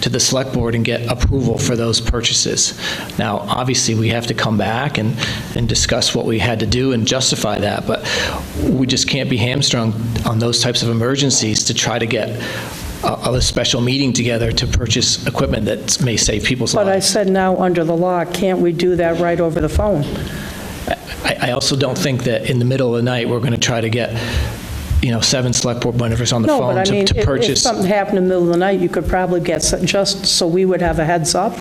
to the select board and get approval for those purchases. Now, obviously, we have to come back and, and discuss what we had to do and justify that, but we just can't be hamstrung on those types of emergencies to try to get a, a special meeting together to purchase equipment that may save people's But I lives. said now, under the law, can't we do that right over the phone? I, I also don't think that in the middle of the night, we're going to try to get, you know, seven select board members on the No, but phone I to mean, to if- if purchase. something happened in the middle of the night, you could probably get, s- just so we would have a heads up.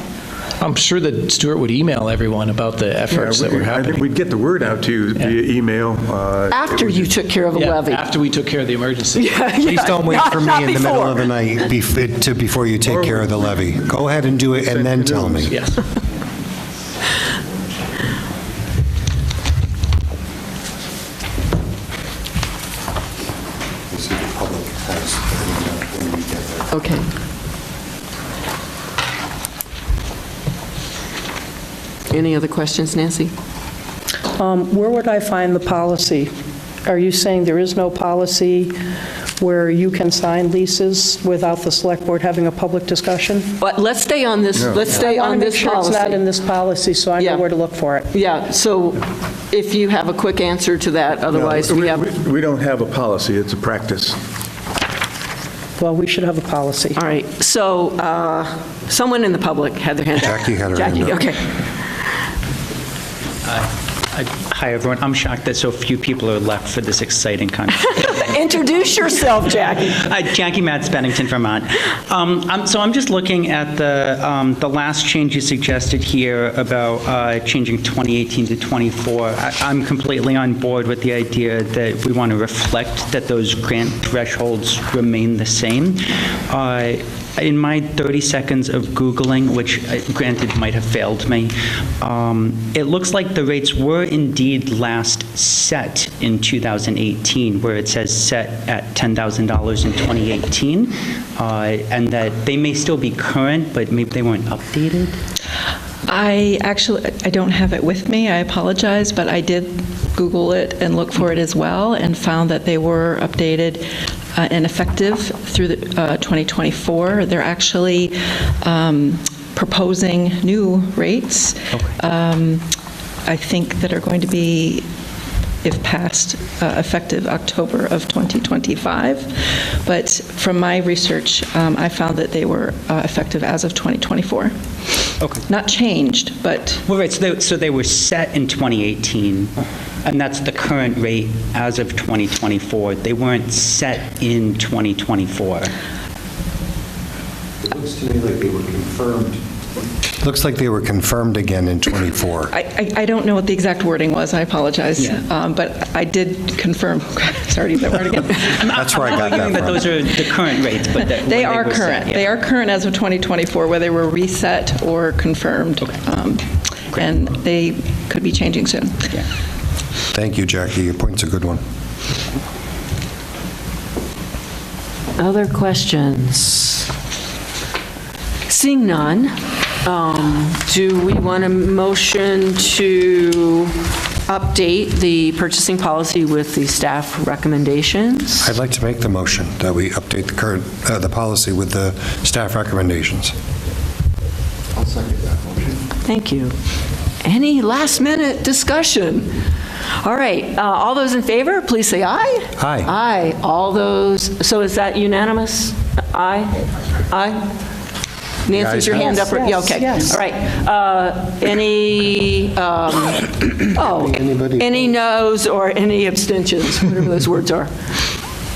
I'm sure that Stuart would email everyone about the efforts that were I think happening. we'd get the word out to you via email. uh, After you took care of a Yeah, levy. After we took care of the emergency. Please Please don't wait for me in the middle of the night bef- to, before you take care of the levy. Go ahead and do it and then tell me. Yes. Okay. Any other questions, Nancy? Um, Where would I find the policy? Are you saying there is no policy where you can sign leases without the select board having a public discussion? But let's stay on this, let's stay I want on this to make sure it's not in policy. this policy, so I Yeah. know where to look for it. Yeah, so if you have a quick answer to that, No, otherwise we have, all We don't have a policy, it's a practice. Well, we should have a policy. right. So uh, someone in the public had their hand up. Jackie had her hand Jackie, up. okay. I- Hi, everyone. I'm shocked that so few people are left for this exciting conversation. Introduce yourself, Jackie. Hi, Jackie Matz, Bennington, Vermont. Um, I'm- So I'm just looking at the, um, the last change you suggested here about uh, changing 2018 to 24. I- I'm completely on board with the idea that we want to reflect that those grant thresholds remain the same. Uh, In my 30 seconds of Googling, which uh, granted might have failed me, um, it looks like the rates were indeed last set in 2018, where it says set at $10,000 in 2018, uh, and that they may still be current, but maybe they weren't updated. I actually, I don't have it with me, I apologize, but I did Google it and look for it as well, and found that they were updated uh, and effective through the, uh, 2024. They're actually um, proposing new rates, um, I think that are going to be, if passed, uh, effective October of 2025. But from my research, um, I found that they were uh, effective as of 2024. Okay. Not changed, but Well, right, so they, so they were set in 2018, and that's the current rate as of 2024. They weren't set in 2024. Looks to me like they were confirmed. Looks like they were confirmed again in '24. I- I I don't know what the exact wording was, I apologize. Yeah. Um, But I did confirm, sorry to use that word again. That's where I got Arguing that that those from. are the current rates, but that. when They are were set, current. yeah. They are current as of 2024, whether we're reset or confirmed. Um, And they could be changing soon. Thank you, Jackie. Your point's a good one. Other questions? Seeing none, um, do we want a motion to update the purchasing policy with the staff recommendations? I'd like to make the motion that we update the current, uh, the policy with the staff recommendations. Thank you. Any last-minute discussion? All right, uh, all those in favor, please say aye. Aye. Aye. All those, so is that unanimous? Aye? Aye? Nancy, is your hand up? Yeah, Yes, okay. yes. All right. Uh, Any, um, oh, Anybody any noes or any abstentions, whatever those words are.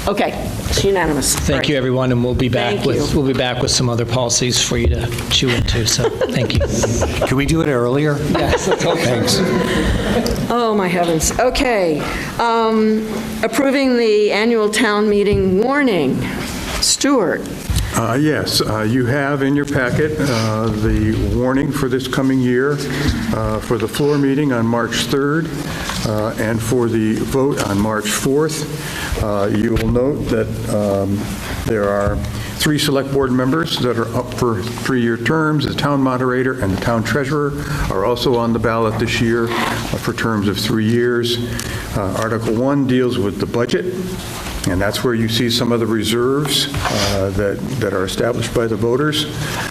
Okay, it's unanimous. Thank you, everyone, and we'll be back Thank with, you. we'll be back with some other policies for you to chew into, so thank you. Can we do it earlier? Yes. Thanks. Oh, my heavens. Okay. Um, Approving the annual town meeting warning. Stuart, Uh, Yes, uh, you have in your packet uh, the warning for this coming year, uh, for the floor meeting on March 3rd, uh, and for the vote on March 4th. Uh, You will note that um, there are three Select Board members that are up for three-year terms. The town moderator and the town treasurer are also on the ballot this year uh, for terms of three years. Uh, Article 1 deals with the budget. And that's where you see some of the reserves uh, that that are established by the voters.